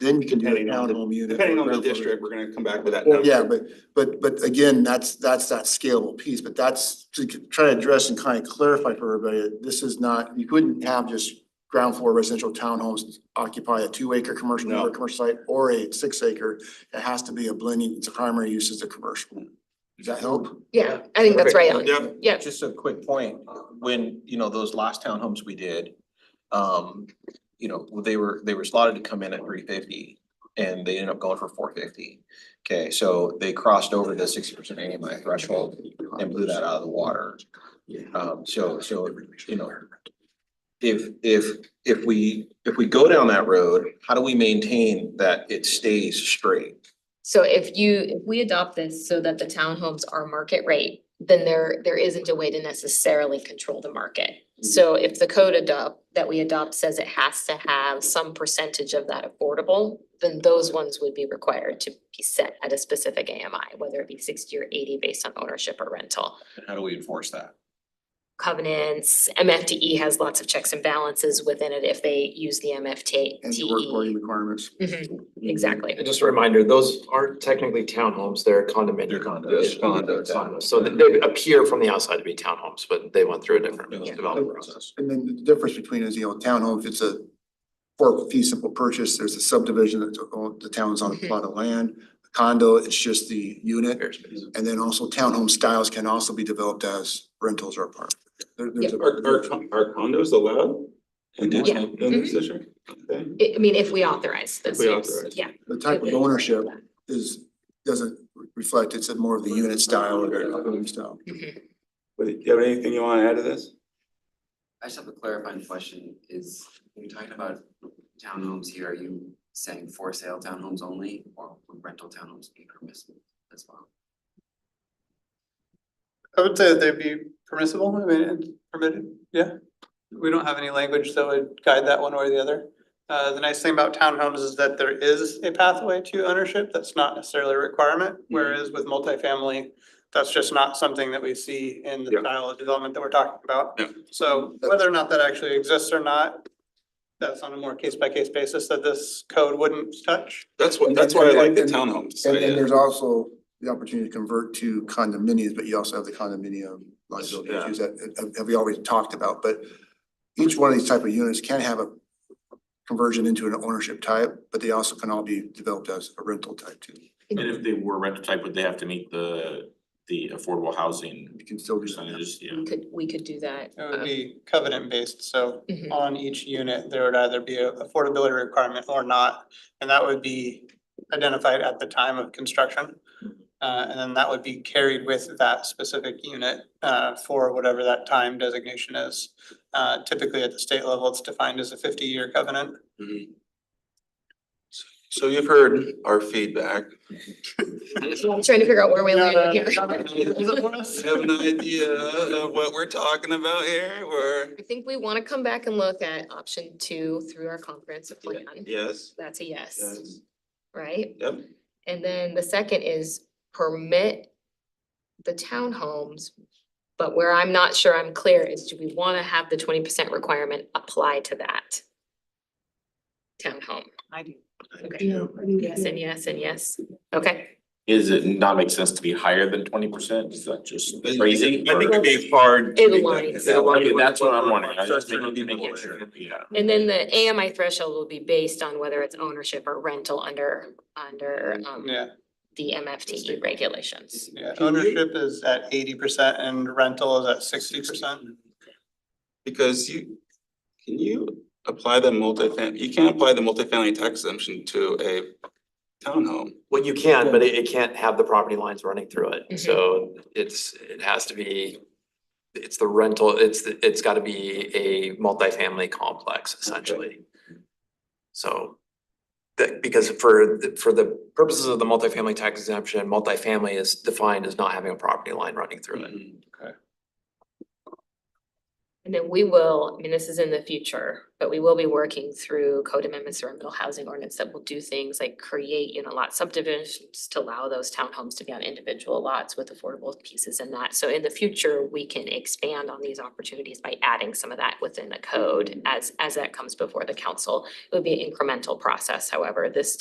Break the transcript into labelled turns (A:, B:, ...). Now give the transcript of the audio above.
A: then you can do a
B: Depending on the-
A: townhome unit. or
B: Depending on the
A: whatever.
B: district, we're gonna come back with that.
A: Well, yeah,
B: number.
A: but, but, but again, that's, that's that scalable piece, but that's to c- try to address and kind of clarify for everybody, that this is not, you couldn't have just ground floor residential townhomes occupy a two acre commercial,
B: No.
A: or commercial site, or a six acre. It has to be a blending, its primary use is a commercial. Does that help?
C: Yeah, I think that's right on.
B: Yeah.
C: Yeah,
D: Just a quick point, when, you know, those last townhomes we did, um, you know, they were, they were slotted to come in at three fifty. And they ended up going for four fifty. Okay, so they crossed over the sixty percent AMI threshold and blew that out of the water. Um, so, so, you know. If, if, if we, if we go down that road, how do we maintain that it stays straight?
C: so if you, if we adopt this so that the townhomes are market rate, then there, there isn't a way to necessarily control the market.
A: Mm-hmm.
C: So if the code adopt, that we adopt says it has to have some percentage of that affordable, then those ones would be required to be set at a specific AMI, whether it be sixty or eighty based on ownership or rental.
D: And how do we enforce that?
C: Covenants, MFTE E has lots of checks and balances within it if they use the MFT.
A: And the work volume requirements.
C: Mhm, E. exactly.
E: And just a reminder, those aren't technically townhomes, they're
D: They're
E: condominium.
D: condos.
E: Yeah, condos. So they- they appear from the outside to be townhomes, but they went through a different
D: Yeah.
E: development process.
A: And then the difference between is, you know, townhome, if it's a for fee simple purchase, there's a subdivision that's owned, the town's on a plot of land. Condo, it's just the unit. And then also townhome styles can also be developed as rentals or apartments. There, there's
B: Are, are,
A: a.
B: con- are condos allowed?
D: We did.
C: Yeah. Mm-hmm.
B: In this district? Okay.
C: I I mean, if we authorize this
B: we
C: use,
B: authorize.
C: yeah.
A: The type of ownership is, doesn't reflect, it's a more of the unit style or the home style.
C: Mhm.
B: Wait, Do you have anything you wanna add to this?
F: I just have a clarifying question, is when you're talking about townhomes here, are you saying for sale townhomes only or would rental townhomes be permissible as well?
G: I would say that they'd be permissible, I mean, and permitted, yeah. We don't have any language that would guide that one way or the other. Uh, the nice thing about townhomes is that there is a pathway to ownership, that's not necessarily a requirement.
B: Mm-hmm.
G: Whereas with multifamily, that's just not something that we see in the
B: Yeah.
G: style of development that we're talking about.
B: Yeah.
G: So whether or not that actually exists or not, that's on a more case by case basis that this code wouldn't touch.
B: That's what,
A: And
B: that's
A: then-
B: why I like the
A: and-
B: townhomes.
A: And then there's also the opportunity to convert to condominiums, but you also have the condominium liability
B: Yeah.
A: issues that, that- that we already talked about, but each one of these type of units can have a conversion into an ownership type, but they also can all be developed as a rental type too.
H: And if they were rental type, would they have to meet the, the affordable housing
A: You can still do that.
H: percentages, yeah?
C: Could, we could do that.
G: It would
C: um,
G: be covenant based, so
C: Mhm.
G: on each unit, there would either be a affordability requirement or not. And that would be identified at the time of construction. Uh, and then that would be carried with that specific unit, uh, for whatever that time designation is. Uh, typically at the state level, it's defined as a fifty-year covenant.
B: So you've heard our feedback.
C: I'm trying to figure out where we landed here.
B: Have an idea of what we're talking about here, or?
C: I think we wanna come back and look at option two through our comprehensive plan.
B: Yes,
C: That's a yes,
B: yes,
C: right?
B: yep.
C: And then the second is permit the townhomes. But where I'm not sure I'm clear is do we wanna have the twenty percent requirement apply to that? Townhome.
I: I do.
C: Okay, yes and yes and yes. Okay,
H: Is it not make sense to be higher than twenty percent? Is that just crazy?
B: I think it'd be hard. to
C: It
B: make that-
C: aligns.
B: that-
H: Okay, that's what I'm wondering. I just
B: Structure
H: think
B: of the
H: making
B: board.
H: sure, yeah.
C: and then the AMI threshold will be based on whether it's ownership or rental under, under, um,
G: Yeah,
C: the MFTE E regulations.
G: yeah, ownership is at eighty percent and rental is at sixty percent.
B: Because you, can you apply the multifamily, you can't apply the multifamily tax exemption to a townhome.
E: Well, you can, but it, it can't have the property lines running through it, so it's, it has to be. It's the rental, it's, the- it's gotta be a multifamily complex essentially. So. That, because for, the- for the purposes of the multifamily tax exemption, multifamily is defined as not having a property line running through it.
C: And then we will, I mean, this is in the future, but we will be working through code amendments around middle housing ordinance that will do things like create, you know, lot subdivisions to allow those townhomes to be on individual lots with affordable pieces in that. So in the future, we can expand on these opportunities by adding some of that within the code as, as that comes before the council. It would be an incremental process, however, this